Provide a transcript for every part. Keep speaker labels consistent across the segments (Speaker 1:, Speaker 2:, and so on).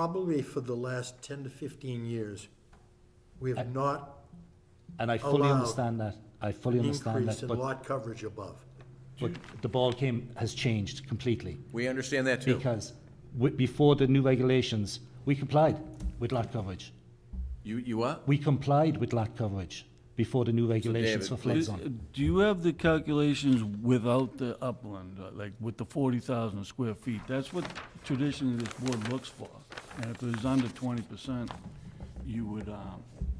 Speaker 1: probably for the last ten to fifteen years, we have not
Speaker 2: And I fully
Speaker 1: Allow
Speaker 2: understand that. I fully understand
Speaker 1: increased
Speaker 2: that.
Speaker 1: in
Speaker 2: But,
Speaker 1: lot coverage above.
Speaker 2: but the ball game has changed completely
Speaker 3: We understand that too.
Speaker 2: because w- before the new regulations, we complied with lot coverage.
Speaker 3: You, you what?
Speaker 2: We complied with lot coverage before the new regulations
Speaker 3: David,
Speaker 2: for flood
Speaker 4: Is-
Speaker 2: zone.
Speaker 4: Do you have the calculations without the upland, uh, like with the forty thousand square feet? That's what traditionally this board looks for. And if it was under twenty percent, you would, um,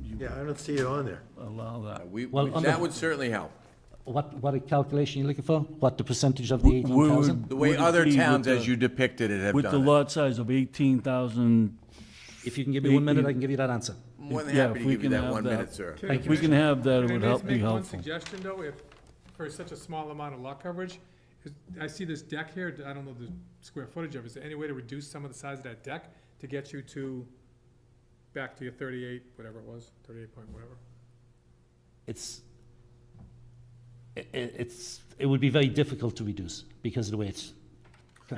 Speaker 4: you
Speaker 1: Yeah, I don't see it on there.
Speaker 4: allow that.
Speaker 3: We,
Speaker 2: Well, on
Speaker 3: that
Speaker 2: the-
Speaker 3: would certainly help.
Speaker 2: What, what a calculation you're looking for? What the percentage of the
Speaker 4: We- we would-
Speaker 2: 18,000?
Speaker 3: The way
Speaker 4: Would it
Speaker 3: other
Speaker 4: be with
Speaker 3: towns, as
Speaker 4: the-
Speaker 3: you depicted it, have
Speaker 4: With the
Speaker 3: done it.
Speaker 4: lot size of eighteen thousand,
Speaker 2: If you can give me one minute, I can give you that answer.
Speaker 3: More than
Speaker 4: Yeah,
Speaker 3: happy
Speaker 4: if
Speaker 3: to
Speaker 4: we
Speaker 3: give you
Speaker 4: can
Speaker 3: that
Speaker 4: have
Speaker 3: one
Speaker 4: that.
Speaker 3: minute, sir.
Speaker 4: if we can have that, it would help, be
Speaker 5: Can I just
Speaker 4: helpful.
Speaker 5: make one suggestion, though, if, for such a small amount of lot coverage? 'Cause I see this deck here, I don't know the square footage of it, is there any way to reduce some of the size of that deck to get you to, back to your thirty-eight, whatever it was, thirty-eight point whatever?
Speaker 2: It's, i- i- it's, it would be very difficult to reduce because of the way it's
Speaker 5: I- I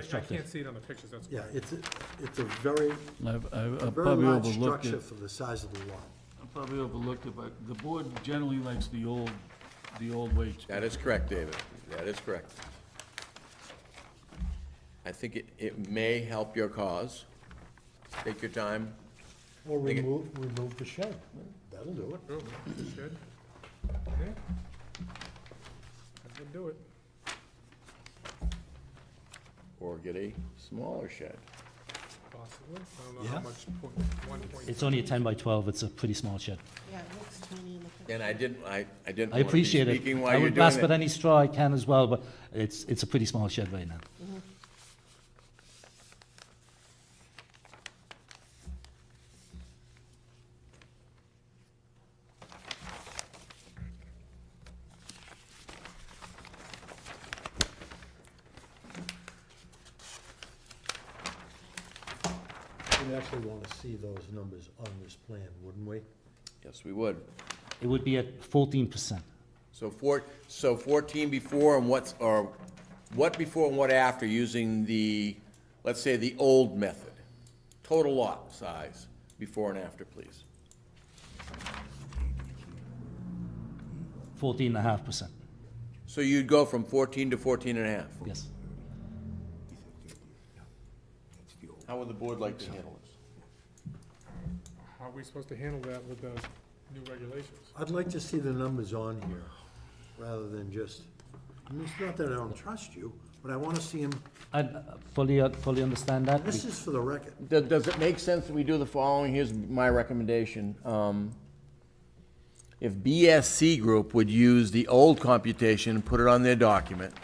Speaker 2: constructed.
Speaker 5: can't see it on the pictures, that's
Speaker 1: Yeah,
Speaker 5: why.
Speaker 1: it's, a- it's a very,
Speaker 4: I've, I've
Speaker 1: a
Speaker 4: I've
Speaker 1: very
Speaker 4: probably
Speaker 1: large
Speaker 4: overlooked
Speaker 1: structure
Speaker 4: it.
Speaker 1: for the size of the lot.
Speaker 4: I probably overlooked it, but the board generally likes the old, the old way. to-
Speaker 3: That is correct, David. That is correct. I think it, it may help your cause. Take your time.
Speaker 1: Or
Speaker 3: Think it-
Speaker 1: remove, remove the shed. That'll do it.
Speaker 5: Room, shed. Yeah. That would do it.
Speaker 3: Or get a smaller shed.
Speaker 5: Possibly. I don't know
Speaker 1: Yeah.
Speaker 5: how much point, one point.
Speaker 2: It's only a 10 by 12, it's a pretty small shed.
Speaker 6: Yeah, it looks tiny in the picture.
Speaker 3: And I didn't, I, I
Speaker 2: I
Speaker 3: didn't want to be
Speaker 2: appreciate it.
Speaker 3: speaking
Speaker 2: I
Speaker 3: while you're
Speaker 2: would grasp at
Speaker 3: doing it.
Speaker 2: any straw I can as well, but it's, it's a pretty small shed right now.
Speaker 1: We'd actually want to see those numbers on this plan, wouldn't we?
Speaker 3: Yes, we would.
Speaker 2: It would be at 14%.
Speaker 3: So four, so fourteen before and what's, or what before and what after using the, let's say, the old method? Total lot size, before and after, please.
Speaker 2: 14.5%,
Speaker 3: So you'd go from fourteen to fourteen and a half.
Speaker 2: yes.
Speaker 3: How would the board like to handle this?
Speaker 5: How are we supposed to handle that with the new regulations?
Speaker 1: I'd like to see the numbers on here, rather than just, I mean, it's not that I don't trust you, but I want to see them,
Speaker 2: I uh, fully, fully understand that.
Speaker 1: this is for the record.
Speaker 3: Does, does it make sense that we do the following? Here's my recommendation. Um, If BSC Group would use the old computation and put it on their document,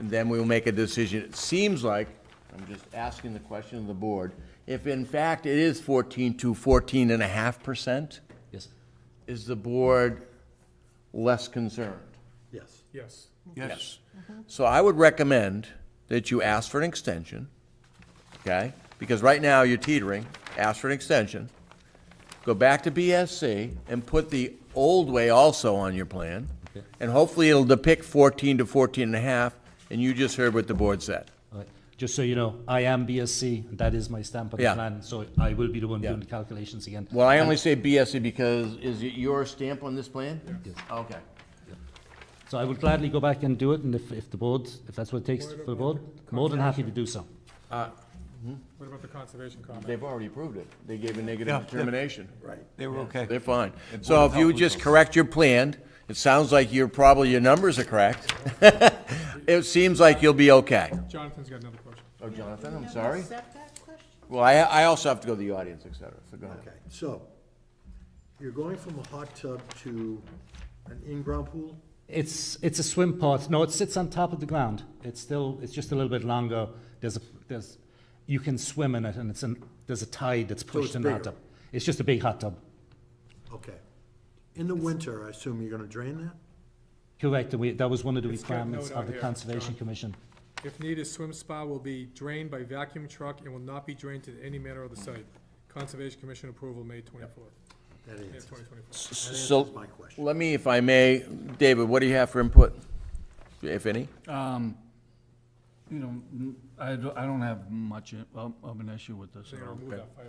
Speaker 3: and then we will make a decision. It seems like, I'm just asking the question of the board, if in fact it is fourteen to fourteen and a half percent,
Speaker 2: Yes.
Speaker 3: is the board less concerned?
Speaker 1: Yes.
Speaker 5: Yes.
Speaker 3: Yes. So I would recommend that you ask for an extension, okay? Because right now you're teetering, ask for an extension. Go back to BSC and put the old way also on your plan. And hopefully it'll depict fourteen to fourteen and a half, and you just heard what the board said.
Speaker 2: All right. Just so you know, I am BSc, and that is my stamp on the
Speaker 3: Yeah.
Speaker 2: plan, so I will be the one doing
Speaker 3: Yeah.
Speaker 2: the calculations again.
Speaker 3: Well, I only say BSC because, is it your stamp on this plan? Yes. Okay.
Speaker 2: So I will gladly go back and do it, and if, if the board, if that's what it takes for the board, more than happy to do so.
Speaker 5: What about the conservation comment?
Speaker 3: They've already approved it. They gave a negative determination.
Speaker 1: Right.
Speaker 7: They were okay.
Speaker 3: They're fine. So if you would just correct your plan, it sounds like you're, probably your numbers are correct. It seems like you'll be okay.
Speaker 5: Jonathan's got another question.
Speaker 3: Oh, Jonathan,
Speaker 6: You
Speaker 3: I'm
Speaker 6: have a
Speaker 3: sorry.
Speaker 6: Setback question?
Speaker 3: Well, I, I also have to go to the audience, et cetera, so go ahead.
Speaker 1: Okay, so, you're going from a hot tub to an in-ground pool?
Speaker 2: It's, it's a swim pot. No, it sits on top of the ground. It's still, it's just a little bit longer. There's a, there's, you can swim in it, and it's an, there's a tide that's
Speaker 1: it's
Speaker 2: pushed in the hot
Speaker 1: bigger.
Speaker 2: tub. It's just a big hot tub.
Speaker 1: Okay. In the winter, I assume you're gonna drain that?
Speaker 2: Correct, and we, that was one of the
Speaker 5: It's got a
Speaker 2: requirements
Speaker 5: note
Speaker 2: of
Speaker 5: on
Speaker 2: the
Speaker 5: here,
Speaker 2: Conservation
Speaker 5: John.
Speaker 2: Commission.
Speaker 5: If needed, swim spa will be drained by vacuum truck and will not be drained to any manner of the site. Conservation Commission approval, May twenty-fourth,
Speaker 1: That
Speaker 5: May of
Speaker 1: answers,
Speaker 5: twenty twenty-four.
Speaker 1: that
Speaker 3: So,
Speaker 1: answers my question.
Speaker 3: let me, if I may, David, what do you have for input, if any?
Speaker 4: Um,
Speaker 8: you know, n- I don't, I don't have much i- of of an issue with this
Speaker 4: So
Speaker 8: at
Speaker 4: you're
Speaker 8: all.
Speaker 4: gonna remove that five